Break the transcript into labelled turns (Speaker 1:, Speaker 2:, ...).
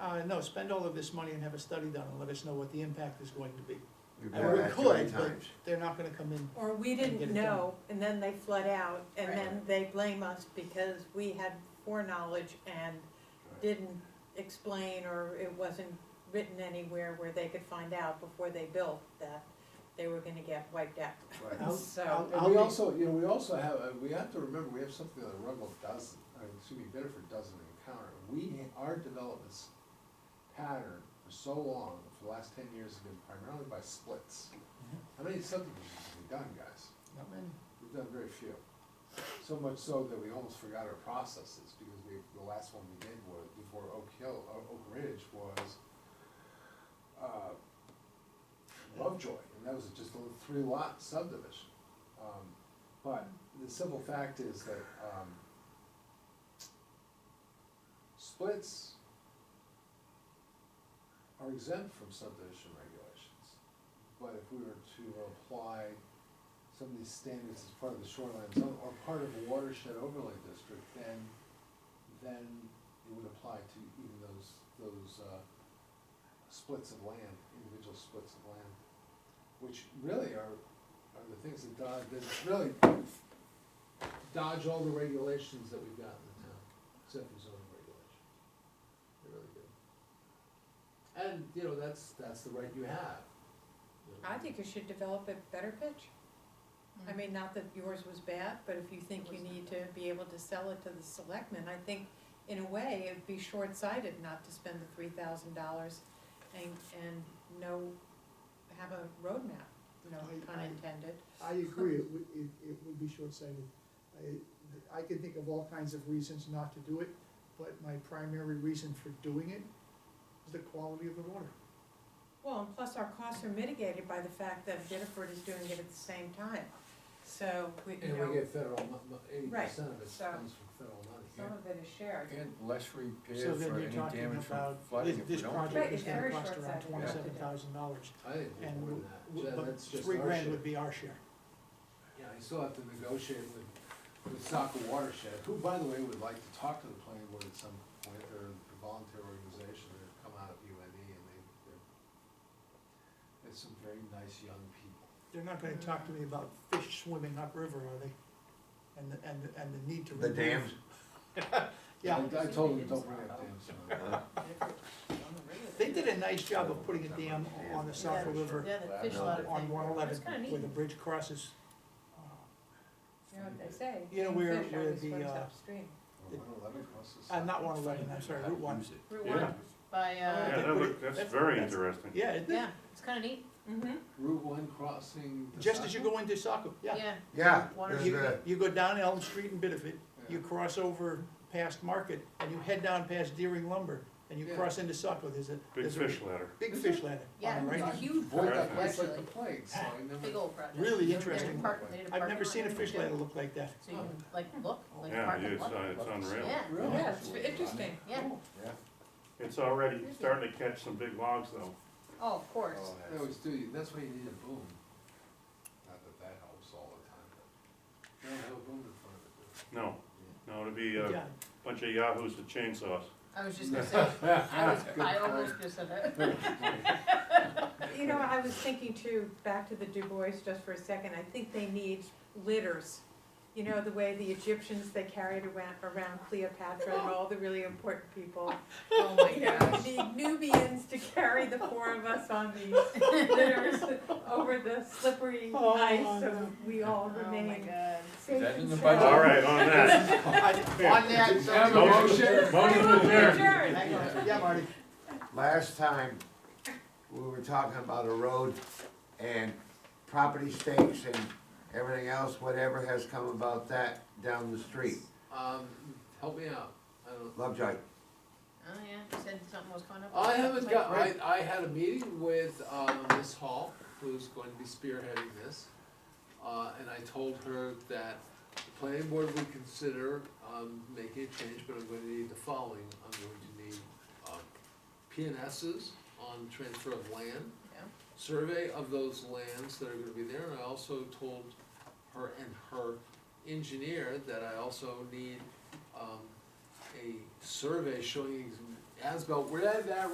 Speaker 1: Uh, no, spend all of this money and have a study done and let us know what the impact is going to be.
Speaker 2: We've
Speaker 1: And
Speaker 2: done
Speaker 1: we
Speaker 2: that too
Speaker 1: could,
Speaker 2: many
Speaker 1: but-
Speaker 2: times.
Speaker 1: They're not gonna come in,
Speaker 3: Or we
Speaker 1: And get it
Speaker 3: didn't know, and then they flood out, and
Speaker 4: Right.
Speaker 3: then they blame us because we had foreknowledge and didn't explain, or it wasn't written anywhere where they could find out before they built that they were gonna get wiped out.
Speaker 5: Right.
Speaker 1: I'll,
Speaker 3: So-
Speaker 1: I'll,
Speaker 5: And
Speaker 1: I'll
Speaker 5: we
Speaker 1: be-
Speaker 5: also, you know, we also have, uh, we have to remember, we have something that Rundle doesn't, I mean, excuse me, Bitterford doesn't encounter. We, our development's pattern for so long, for the last ten years, has been primarily by splits. How many subdivisions have we done, guys?
Speaker 1: not many.
Speaker 5: We've done very few. So much so that we almost forgot our processes, because we, the last one we did was, before Oak Hill, uh, Oak Ridge was, uh, Lovejoy, and that was just a little three lot subdivision. Um, But the simple fact is that, um, splits are exempt from subdivision regulations. But if we were to apply some of these standards as part of the shoreline zone or part of a watershed overlay district, then, then it would apply to even those, those, uh, splits of land, individual splits of land, which really are, are the things that dodge, that really dodge all the regulations that we've got in the town, except for zoning regulations. They really do. And, you know, that's, that's the right you have. you know.
Speaker 3: I think you should develop a better pitch. I mean, not that yours was bad, but if you think you need to be able to sell it to the selectmen, I think in a way, it'd be short-sighted not to spend the three thousand dollars and, and no, have a roadmap, no
Speaker 6: I-
Speaker 3: pun
Speaker 6: I-
Speaker 3: intended.
Speaker 6: I agree, it would, it, it would be short-sighted. I, I can think of all kinds of reasons not to do it, but my primary reason for doing it is the quality of the water.
Speaker 3: Well, and plus our costs are mitigated by the fact that Bitterford is doing it at the same time, so we, you
Speaker 5: And we
Speaker 3: know,
Speaker 5: get federal, eighty percent of it
Speaker 3: so-
Speaker 5: comes from federal money.
Speaker 3: some of it is shared.
Speaker 7: And less
Speaker 1: So
Speaker 7: repair
Speaker 1: then
Speaker 7: for
Speaker 1: you're
Speaker 7: any
Speaker 1: talking
Speaker 7: damage from
Speaker 1: about,
Speaker 7: flooding
Speaker 1: this,
Speaker 7: if we
Speaker 1: this
Speaker 7: don't.
Speaker 1: project
Speaker 4: Right,
Speaker 1: is
Speaker 4: it's
Speaker 1: gonna
Speaker 4: very
Speaker 1: cost around
Speaker 4: short-sighted.
Speaker 1: twenty-seven thousand dollars.
Speaker 5: I think it's
Speaker 1: And,
Speaker 5: more
Speaker 1: w-
Speaker 5: than that,
Speaker 1: w-
Speaker 5: Yeah,
Speaker 1: but
Speaker 5: that's just
Speaker 1: three
Speaker 5: our
Speaker 1: grand
Speaker 5: share.
Speaker 1: would be our share.
Speaker 5: Yeah, you still have to negotiate with, with Saco Watershed, who, by the way, would like to talk to the planning board at some point, they're a volunteer organization, they've come out of UNE, and they, they're, they're some very nice young people.
Speaker 1: They're not gonna talk to me about fish swimming upriver, are they? And, the- and, the- and the need to.
Speaker 2: The
Speaker 1: remove-
Speaker 2: dams,
Speaker 1: Yeah,
Speaker 5: I I told them, don't bring up dams. no."
Speaker 2: uh,
Speaker 1: they did a nice job of putting a dam on the South River
Speaker 4: Yeah, the fish lot of
Speaker 1: on
Speaker 4: thing.
Speaker 1: one eleven,
Speaker 4: That's kinda neat.
Speaker 1: where the bridge crosses. uh,
Speaker 3: You know what they say,
Speaker 1: You know,
Speaker 3: king
Speaker 1: where-
Speaker 3: fish
Speaker 1: where
Speaker 3: always
Speaker 1: the,
Speaker 3: swims
Speaker 1: uh,
Speaker 3: upstream.
Speaker 5: Well, 111 crosses-
Speaker 1: Uh, not one eleven, I'm sorry, Route one.
Speaker 7: Use it.
Speaker 4: Route
Speaker 8: Yeah.
Speaker 4: one by,
Speaker 1: Yeah,
Speaker 3: Oh,
Speaker 8: Yeah,
Speaker 4: uh,
Speaker 1: that
Speaker 8: that
Speaker 1: look-
Speaker 8: look,
Speaker 1: that's-
Speaker 8: that's very
Speaker 1: that's-
Speaker 8: interesting.
Speaker 1: Yeah, isn't it?
Speaker 4: yeah, it's kinda neat,
Speaker 3: Mm-hmm.
Speaker 5: Route one crossing. the
Speaker 1: Just as you
Speaker 5: Saco?
Speaker 1: go into Saco, yeah.
Speaker 4: yeah.
Speaker 2: yeah,
Speaker 4: Water-
Speaker 2: there's
Speaker 1: You,
Speaker 2: the,
Speaker 1: you go down Elm Street in Bitterford,
Speaker 5: Yeah.
Speaker 1: you cross over past Market, and you head down past Deering Lumber, and you
Speaker 5: Yeah.
Speaker 1: cross into Saco, there's a,
Speaker 8: Big
Speaker 1: there's a
Speaker 8: fish ladder.
Speaker 1: big fish ladder
Speaker 4: Yeah,
Speaker 1: on the right.
Speaker 4: it's a huge
Speaker 5: Avoid that
Speaker 4: project,
Speaker 5: place like the
Speaker 4: actually,
Speaker 5: plague, so I never.
Speaker 4: big old project.
Speaker 1: Really
Speaker 4: They did a
Speaker 1: interesting.
Speaker 4: park- they did a
Speaker 1: I've
Speaker 4: parking
Speaker 1: never
Speaker 4: lot
Speaker 1: seen a
Speaker 4: and
Speaker 1: fish
Speaker 4: everything.
Speaker 1: ladder look like that.
Speaker 4: So you can like look, like
Speaker 8: Yeah,
Speaker 4: park and
Speaker 8: it's,
Speaker 4: look.
Speaker 8: uh, it's unreal.
Speaker 4: Yeah,
Speaker 5: Really?
Speaker 3: Yeah, it's interesting.
Speaker 4: yeah,
Speaker 7: Yeah.
Speaker 8: It's already starting to catch some big logs though.
Speaker 4: oh, of course.
Speaker 7: Oh,
Speaker 5: They
Speaker 7: that's-
Speaker 5: always do, you- that's why you need a boom. Not that that helps all the time, but you don't have a boom in front of it. do you?
Speaker 8: No, no, it'd be
Speaker 1: Yeah,
Speaker 8: a bunch of yahoos with chainsaws.
Speaker 4: I was just gonna say, I was, I almost just said that.
Speaker 3: You know, I was thinking too, back to the Du Bois just for a second, I think they need litters. You know, the way the Egyptians, they carried around, around Cleopatra and all the really important people.
Speaker 4: Oh my
Speaker 3: You know,
Speaker 4: gosh.
Speaker 3: we need Nubians to carry the four of us on these litters over the slippery
Speaker 1: Oh,
Speaker 3: ice, so
Speaker 1: no.
Speaker 3: we all
Speaker 4: Oh my
Speaker 3: remain
Speaker 4: god.
Speaker 3: safe
Speaker 7: Is that in
Speaker 3: and
Speaker 7: the
Speaker 3: sound.
Speaker 7: budget?
Speaker 8: All right, on that.
Speaker 2: on that,
Speaker 5: Have a
Speaker 2: so-
Speaker 5: motion?
Speaker 8: Motion to adjourn.
Speaker 3: Adjourn.
Speaker 2: Hang on.
Speaker 1: yeah, Marty.
Speaker 2: last time, we were talking about a road and property stakes and everything else, whatever has come about that down the street,
Speaker 5: Um, help me out, I don't.
Speaker 2: Lovejoy.
Speaker 4: Oh, yeah, you said something was coming up.
Speaker 5: I haven't got, I, I had a meeting with, uh, Ms. Hall, who's going to be spearheading this. Uh, and I told her that the planning board would consider, um, making a change, but I'm gonna need the following. I'm going to need, uh, P and S's on transfer of land.
Speaker 4: Yeah.
Speaker 5: Survey of those lands that are gonna be there, and I also told her and her engineer that I also need, um, a survey showing as-built, where that